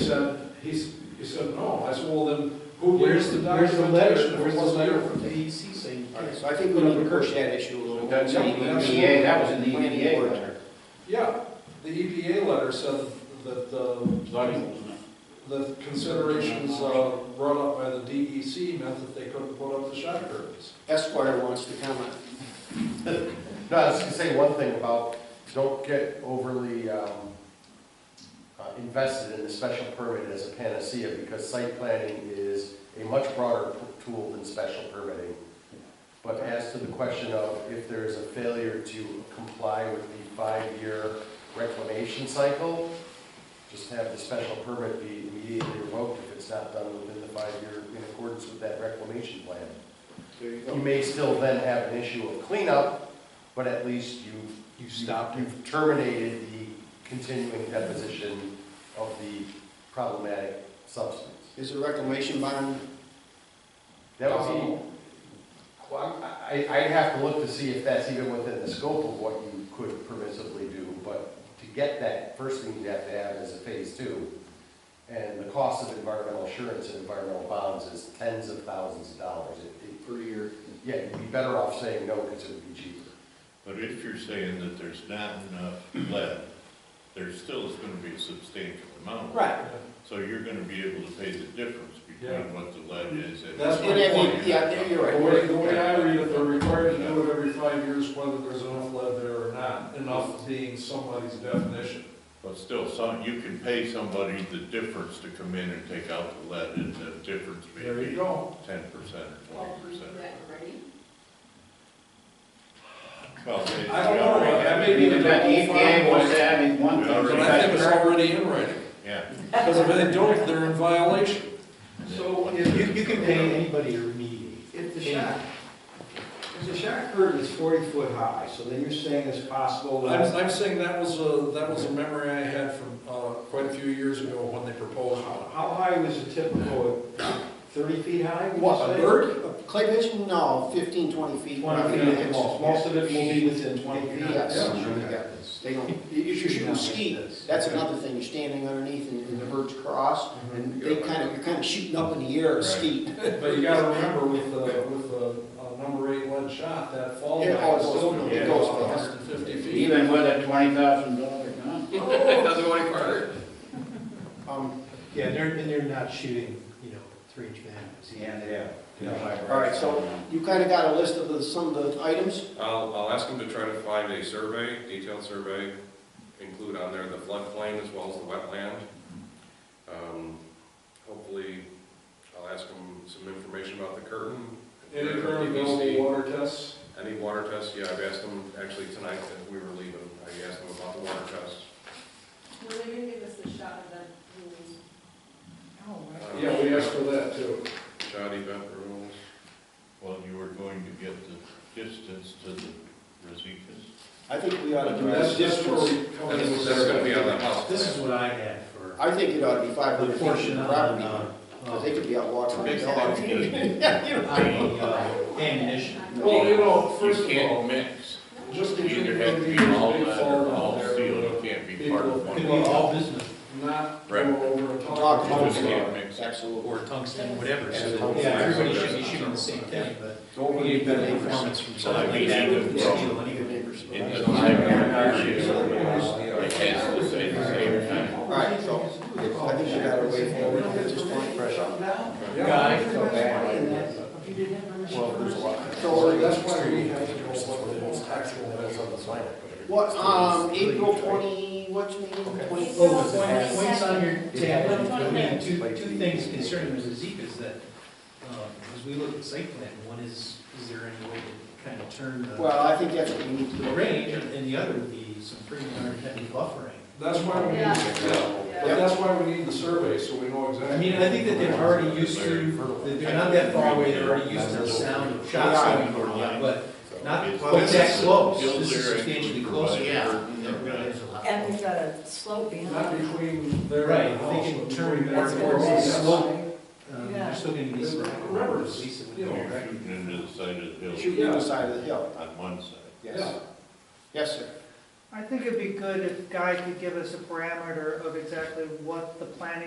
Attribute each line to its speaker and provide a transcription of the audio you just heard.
Speaker 1: said, he's, he said, no, I said, well, then, who
Speaker 2: Where's
Speaker 1: gives
Speaker 2: the,
Speaker 1: the
Speaker 2: where's the letter,
Speaker 1: documentation?
Speaker 2: where's the
Speaker 1: What's
Speaker 2: letter
Speaker 1: different?
Speaker 2: from the DEC saying?
Speaker 3: All right, so I think we need to push that issue a little.
Speaker 1: That's- that's-
Speaker 3: EDA, E that was in the EDA letter.
Speaker 1: Yeah, the EPA letter said that, uh, the considerations, uh, brought up by the DEC meant that they couldn't put up the shot curtains.
Speaker 3: Esquire wants to comment.
Speaker 4: No, I was gonna say one thing about, don't get overly, um, uh, invested in the special permit as a panacea, because site planning is a much broader p- tool than special permitting. But as to the question of if there is a failure to comply with the five-year reclamation cycle, just have the special permit be immediately revoked if it's not done within the five-year, in accordance with that reclamation plan.
Speaker 3: There you
Speaker 4: You
Speaker 3: go.
Speaker 4: may still then have an issue of cleanup, but at least you've. You've stopped. You've terminated the continuing deposition of the problematic substance.
Speaker 3: Is a reclamation bond,
Speaker 4: That would be, well, I, I'd have to look to see if that's even within the scope of what you could permissibly do, but to get that, first thing you have to have is a phase two. And the cost of environmental assurance and environmental bonds is tens of thousands of dollars. It, it,
Speaker 3: per year,
Speaker 4: yeah, you'd be better off saying no because it would be cheaper.
Speaker 5: But if you're saying that there's not enough lead, there still is gonna be a substantial amount.
Speaker 3: right,
Speaker 5: So you're gonna be able to pay the difference
Speaker 1: Yeah.
Speaker 5: between what the lead is and.
Speaker 1: That's
Speaker 3: and I mean, yeah, you're
Speaker 1: The
Speaker 3: right.
Speaker 1: way, the way I read it, they're required to do it every five years, whether there's enough lead there or not, enough being somebody's definition.
Speaker 5: But still, some, you can pay somebody the difference to come in and take out the lead, and the difference may
Speaker 1: There you
Speaker 5: be
Speaker 1: go.
Speaker 5: ten percent or
Speaker 6: Well,
Speaker 5: twenty
Speaker 6: we do
Speaker 5: percent.
Speaker 6: that already.
Speaker 1: I don't know, I may be the
Speaker 7: But the EPA was having one
Speaker 5: We already-
Speaker 7: thing.
Speaker 1: But I think it's already in writing,
Speaker 5: Yeah,
Speaker 1: because if they don't, they're in violation.
Speaker 2: So if you, you can pay anybody to remediate.
Speaker 7: If the shock, if the shock curtain is forty foot high, so then you're saying it's possible
Speaker 1: I'm,
Speaker 7: that.
Speaker 1: I'm saying that was a, that was a memory I had from, uh, quite a few years ago when they proposed it.
Speaker 7: How high was the typical, thirty feet high? would you
Speaker 3: What, a
Speaker 7: say?
Speaker 3: bird, clay pigeon, no, fifteen, twenty feet.
Speaker 7: Twenty feet at the most, most of it will be within twenty feet.
Speaker 3: Yes,
Speaker 7: Yeah.
Speaker 3: you got this, they don't, if you're shooting skeet, that's another thing, you're standing underneath and and the birds cross, and they kind of, you're kind of shooting up in the air,
Speaker 5: Right.
Speaker 3: skeet.
Speaker 1: But you gotta remember with the, with the, uh, number eight lead shot, that fall
Speaker 3: Yeah,
Speaker 1: back
Speaker 3: oh, it
Speaker 1: is
Speaker 3: goes-
Speaker 1: still gonna be
Speaker 3: it goes
Speaker 1: about
Speaker 3: fast.
Speaker 1: hundred and fifty feet.
Speaker 7: Even with a twenty thousand dollar gun.
Speaker 3: Doesn't want to hurt. Um,
Speaker 2: Yeah, and they're, and they're not shooting, you know, three inch magnums.
Speaker 7: Yeah, yeah.
Speaker 3: All right, so you kind of got a list of the, some of the items?
Speaker 8: I'll, I'll ask them to try to find a survey, detailed survey, include on there the floodplain as well as the wetland. Um, Hopefully, I'll ask them some information about the curtain.
Speaker 1: Any current available water tests?
Speaker 8: Any water tests, yeah, I've asked them, actually tonight that we were leaving, I asked them about the water tests.
Speaker 6: Were they gonna give us the shot of the rules?
Speaker 8: Um,
Speaker 1: Yeah, we asked for that too.
Speaker 8: Shot event rules.
Speaker 5: well, you were going to get the distance to the Rosicas.
Speaker 3: I think we ought to do
Speaker 1: That's,
Speaker 3: this.
Speaker 1: that's where we come in.
Speaker 8: That's, that's gonna be on the house.
Speaker 2: This
Speaker 8: plan.
Speaker 2: is what I had for
Speaker 3: I think it ought to be five
Speaker 2: the
Speaker 3: hundred feet
Speaker 2: portion
Speaker 3: from the
Speaker 2: on,
Speaker 3: property,
Speaker 2: uh,
Speaker 3: because they could be out walking
Speaker 5: Big
Speaker 3: their dog.
Speaker 5: thing is,
Speaker 2: on, uh, ammunition.
Speaker 1: Well, you know, first
Speaker 5: You
Speaker 1: of all,
Speaker 5: can't mix.
Speaker 1: just
Speaker 5: You
Speaker 1: because you
Speaker 5: Either
Speaker 1: have
Speaker 5: have to
Speaker 1: these big
Speaker 5: be all lead
Speaker 1: fall
Speaker 5: or
Speaker 1: down
Speaker 5: all steel,
Speaker 1: there,
Speaker 5: you can't be part of one.
Speaker 2: Well, all business,
Speaker 1: not go
Speaker 5: Right.
Speaker 1: over and
Speaker 3: Talk
Speaker 1: talk
Speaker 5: You
Speaker 3: about
Speaker 1: about
Speaker 5: just
Speaker 3: it.
Speaker 5: can't mix.
Speaker 3: Absolutely.
Speaker 2: or tungsten, whatever, so,
Speaker 3: Yeah.
Speaker 2: yeah, everybody should be shooting the same thing, but
Speaker 7: Don't
Speaker 2: we need better performance from something like that. than steel anyway.
Speaker 5: In the same area, it has to say the same time.
Speaker 3: All right, so I think we got to wait for it at this point.
Speaker 2: Guy,
Speaker 4: Well, there's a lot.
Speaker 1: So uh, that's why we have to go with the most actual
Speaker 4: That's
Speaker 1: measure.
Speaker 4: on the planet.
Speaker 3: What, um, April twenty, what's meeting, twenty?
Speaker 2: Oh, points, points on your tab, I mean,
Speaker 6: Twenty-nine.
Speaker 2: two, two things concerning the Zekas that, um, as we look at site plan, one is, is there any way to kind of turn the,
Speaker 3: Well, I think that's what we need to
Speaker 2: the
Speaker 3: do.
Speaker 2: range, and the other would be some pretty darn heavy buffering.
Speaker 1: That's why we need, yeah, but
Speaker 6: Yeah.
Speaker 1: that's why we need the survey, so we know exactly.
Speaker 2: I mean, I think that they're already used to, that they're not that far away, they're already used to the sound of shots going on, but not quite that close, this is substantially closer.
Speaker 9: And there's a slope
Speaker 1: Not
Speaker 9: behind it.
Speaker 1: between there
Speaker 2: Right,
Speaker 1: and the
Speaker 2: they
Speaker 1: house.
Speaker 2: can
Speaker 1: but
Speaker 2: turn
Speaker 1: between there
Speaker 2: more
Speaker 1: and the
Speaker 2: towards the
Speaker 1: house.
Speaker 2: slope, um, they're still gonna be.
Speaker 1: Remember, it's,
Speaker 2: Lisa would
Speaker 1: you
Speaker 2: know,
Speaker 1: know,
Speaker 2: right?
Speaker 5: Shooting into the side of the hill
Speaker 3: Shoot from the side of the hill,
Speaker 5: on one side.
Speaker 3: yes. Yes, sir.
Speaker 10: I think it'd be good if Guy could give us a parameter of exactly what the planning